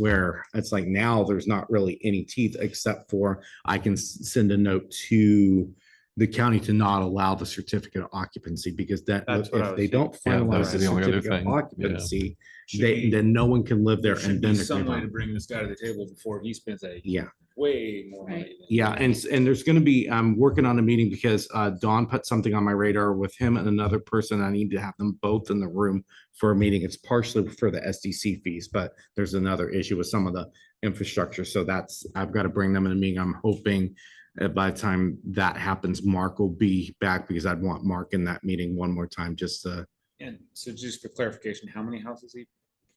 where it's like now there's not really any teeth except for I can s- send a note to the county to not allow the certificate of occupancy because that, That's what I if was they don't Yeah, those finalize the are the only other certificate of thing. Yeah. occupancy, Should they, be- then no one can live there there and should then. be they're some way to gonna- bring this guy to the table before he spends a Yeah. way more money. than- Yeah, and, s- and there's gonna be, I'm working on a meeting because uh, Don put something on my radar with him and another person. I need to have them both in the room for a meeting. It's partially for the SDC fees, but there's another issue with some of the infrastructure. So that's, I've got to bring them in a meeting. I'm hoping uh, by the time that happens, Mark will be back because I'd want Mark in that meeting one more time, just to, And so just for clarification, how many houses he?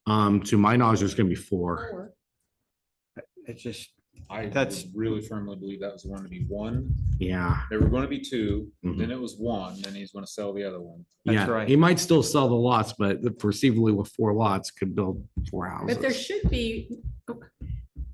um, to my knowledge, there's gonna be four. Or It's just, I That's- would really firmly believe that was going to be one. Yeah, There were going to be two, Mhm. then it was one, then he's going to sell the other one. That's yeah. right. He might still sell the lots, but perceivably with four lots could build four houses. But there should be,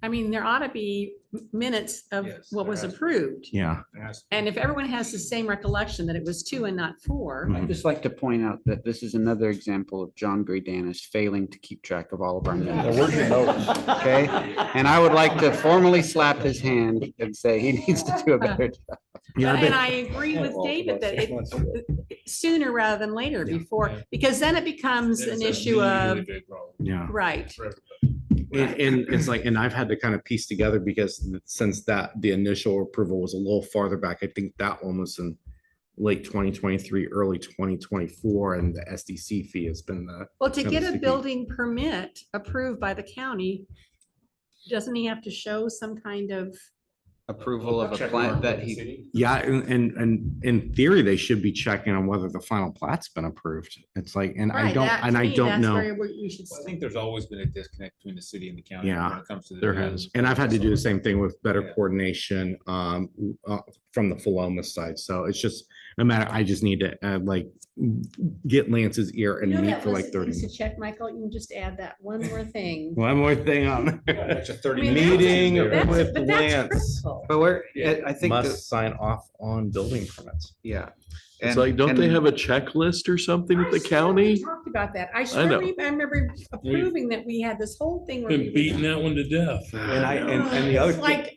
I mean, there ought to be minutes of Yes, what there was has to be. approved. Yeah. It has to be. And if everyone has the same recollection that it was two and not four, uh, Mhm. I'd just like to point out that this is another example of John Greedanis failing to keep track of all of our minutes. Okay, and I would like to formally slap his hand and say he needs to do a better job. Yeah, I and bet- I agree with David that it sooner rather than later Yeah. before, because then it becomes It's an a issue really, of, really big problem. yeah. right. And, and it's like, and I've had to kind of piece together because since that, the initial approval was a little farther back, I think that one was in late twenty twenty-three, early twenty twenty-four, and the SDC fee has been the, Well, to Kind of get a sticky. building permit approved by the county, doesn't he have to show some kind of, Approval of a Check plan mark that with the he, city. yeah, and, and, and in theory, they should be checking on whether the final plat's been approved. It's like, and I Right, don't, that- to and I me, don't that's know. where we- we should Well, I think there's always been a disconnect between the city and the county. Yeah, when it comes to the there deal. has. And I've had to do the same thing with better Yeah. coordination, um, uh, from the Philomath side. So it's just no matter, I just need to, uh, like, get Lance's ear and You know meet that for list like of thirty. things To check, Michael, you can just add that one more thing. One more thing on Yeah, an extra 30 I mean, minutes meeting in there. That's- with but that's Lance. critical. but we're, I I think, that- must sign off on building permits. yeah. It's And- like, don't they and- have a checklist or something with I the swear county? we Talked about that. I sure, know. re- I remember approving that we had this whole thing. where we Been would- beating that one to death. And I, and, and the other. It's Like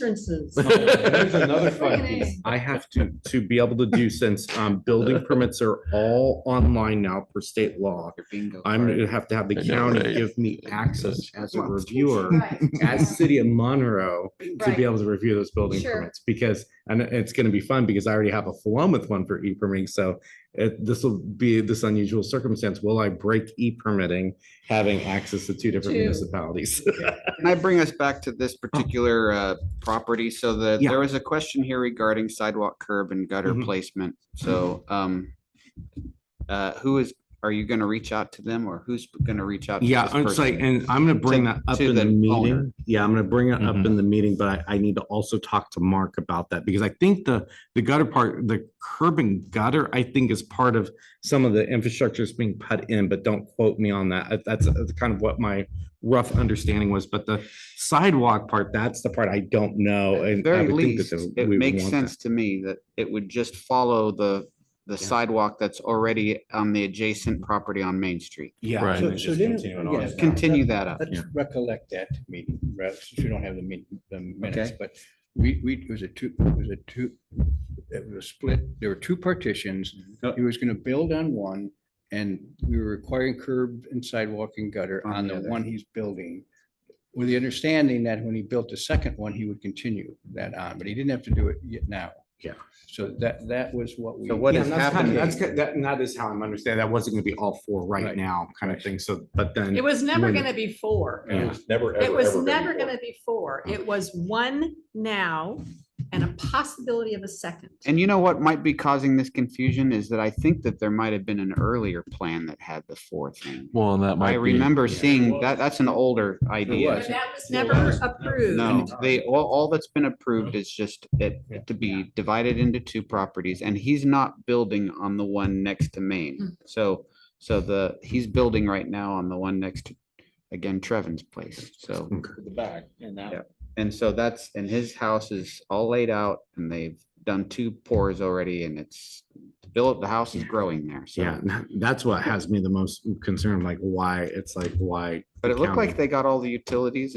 remonstrances. There's another fun Friggin' piece I have to, to be able to do since, um, building permits are all online now per state law. Your bingo I'm card. gonna have to have the I know, county right? give me access as a reviewer, Right, as city of Monroe, to right. be able to review those building Sure. permits. Because, and it's gonna be fun because I already have a Philomath one for e-permitting, so it, this will be this unusual circumstance. Will I break e-permitting, having access to two different Two. municipalities? Can I bring us back to this particular uh, property? So the, Oh. Yeah. there was a question here regarding sidewalk curb and gutter Mhm. placement. So um, uh, who is, are you going to reach out to them or who's going to reach out? to Yeah, this it's like, person? and I'm gonna bring To- that up to in the the owner. meeting. Yeah, I'm gonna bring it up Mhm. in the meeting, but I, I need to also talk to Mark about that because I think the, the gutter part, the curb and gutter, I think is part of some of the infrastructure that's being put in, but don't quote me on that. Uh, That's uh, kind of what my rough understanding was, but the sidewalk part, that's the part I don't know. At and I very would think that least, there- it we would makes want that. sense to me that it would just follow the, the Yeah. Mm-hmm. sidewalk that's already on the adjacent property on Main Street. Yeah, Right. So- just so didn't- continuing on. yeah, Let's that- Continue that up. Let's Yeah. recollect that meeting, right, since we don't have the min- the minutes, Okay. but we, we, it was a two, it was a two, it was split, there were two partitions. He was gonna build on one, and we were requiring curb and sidewalk and gutter On on the the other. one he's building. With the understanding that when he built the second one, he would continue that on, but he didn't have to do it yet now. Yeah. So that, that was what we. So what Yeah, is and that's kinda- happening? That's, good- that, and that is how I'm understanding. That wasn't gonna be all four right Right. now kind of Right. thing. So, but then. It was never When- gonna be four. Yeah. Never, ever. It was ever never before. gonna be four. It was one now and a possibility of a second. And you know what might be causing this confusion is that I think that there might have been an earlier plan that had the four thing. Well, and that might I be- remember seeing was. that, that's an older idea. But that was Well, never that was- approved. No, they, all, all that's been approved is just it to be divided into two properties and he's not building on the one next to Maine. So, so the, he's building right now on the one next to, again, Trevin's place. So, At The back and that. Yeah. and so that's, and his house is all laid out and they've done two pours already and it's built, the house is growing there. Yeah, So, and that's what has me the most concerned, like why, it's like, why? but it the looked county- like they got all the utilities